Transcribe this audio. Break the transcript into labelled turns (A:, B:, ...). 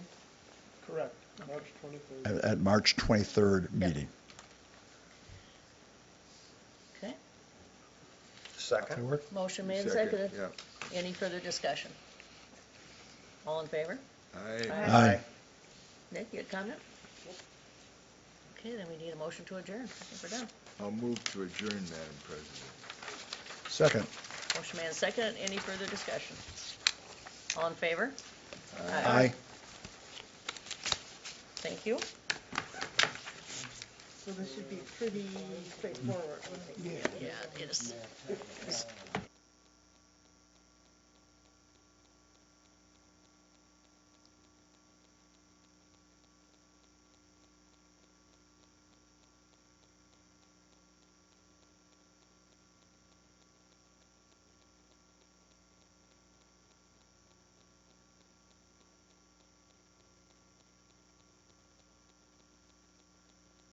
A: Correct, March 23rd.
B: at, at March 23rd
C: Yep.
B: meeting.
C: Okay,
D: Second?
C: motion made and
D: Second,
C: seconded. Any further discussion? All in favor?
D: Yeah.
C: Aye.
B: Aye.
C: Nick, you had a comment? Okay, then we need a motion to adjourn. I think we're done.
D: I'll move to adjourn, Madam President.
B: Second.
C: Motion made and seconded. Any further discussion? All in favor?
B: Aye.
C: Thank you.
E: So this should be pretty straightforward, wouldn't it?
C: Yeah, it is.